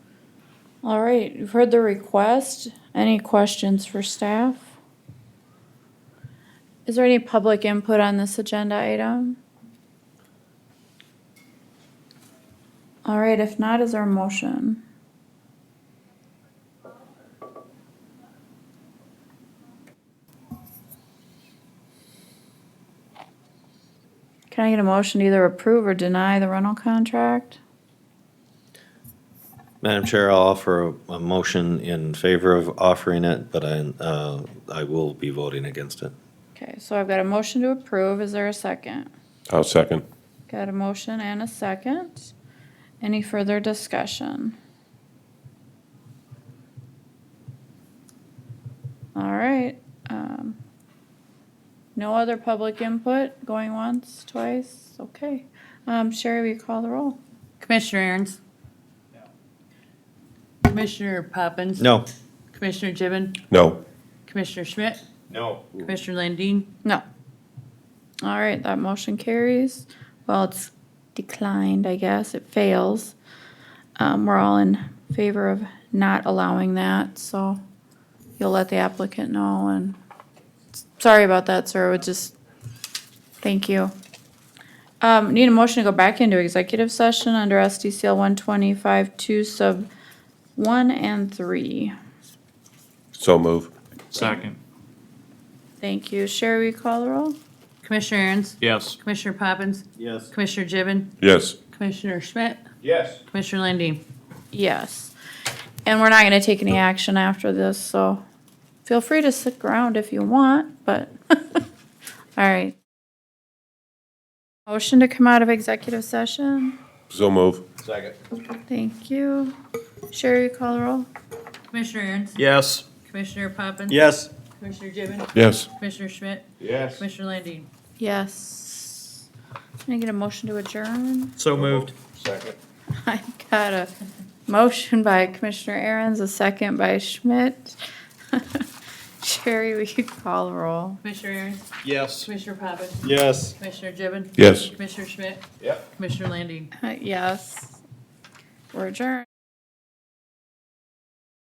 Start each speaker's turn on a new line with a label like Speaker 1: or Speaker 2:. Speaker 1: All right, you've heard the request. Any questions for staff? Is there any public input on this agenda item? All right, if not, is our motion? Can I get a motion to either approve or deny the rental contract?
Speaker 2: Madam Chair, I'll offer a, a motion in favor of offering it, but I, uh, I will be voting against it.
Speaker 1: Okay, so I've got a motion to approve. Is there a second?
Speaker 3: I'll second.
Speaker 1: Got a motion and a second. Any further discussion? All right, um, no other public input, going once, twice, okay. Um, Sherry, will you call the roll?
Speaker 4: Commissioner Aaron's? Commissioner Poppins?
Speaker 2: No.
Speaker 4: Commissioner Gibbon?
Speaker 3: No.
Speaker 4: Commissioner Schmidt?
Speaker 2: No.
Speaker 4: Commissioner Landine?
Speaker 1: No. All right, that motion carries. Well, it's declined, I guess. It fails. Um, we're all in favor of not allowing that, so you'll let the applicant know and sorry about that, sir. It was just, thank you. Um, need a motion to go back into executive session under SDCL one twenty-five two sub one and three.
Speaker 3: So move.
Speaker 5: Second.
Speaker 1: Thank you. Sherry, will you call the roll?
Speaker 4: Commissioner Aaron's?
Speaker 5: Yes.
Speaker 4: Commissioner Poppins?
Speaker 2: Yes.
Speaker 4: Commissioner Gibbon?
Speaker 3: Yes.
Speaker 4: Commissioner Schmidt?
Speaker 3: Yes.
Speaker 4: Commissioner Landine?
Speaker 1: Yes. And we're not gonna take any action after this, so feel free to stick around if you want, but, all right. Motion to come out of executive session.
Speaker 3: So move.
Speaker 2: Second.
Speaker 1: Thank you. Sherry, you call the roll?
Speaker 4: Commissioner Aaron's?
Speaker 5: Yes.
Speaker 4: Commissioner Poppins?
Speaker 2: Yes.
Speaker 4: Commissioner Gibbon?
Speaker 3: Yes.
Speaker 4: Commissioner Schmidt?
Speaker 3: Yes.
Speaker 4: Commissioner Landine?
Speaker 1: Yes. Can I get a motion to adjourn?
Speaker 5: So moved.
Speaker 3: Second.
Speaker 1: I got a motion by Commissioner Aaron's, a second by Schmidt. Sherry, will you call the roll?
Speaker 4: Commissioner Aaron's?
Speaker 5: Yes.
Speaker 4: Commissioner Poppins?
Speaker 2: Yes.
Speaker 4: Commissioner Gibbon?
Speaker 3: Yes.
Speaker 4: Commissioner Schmidt?
Speaker 3: Yep.
Speaker 4: Commissioner Landine?
Speaker 1: Yes. We're adjourned.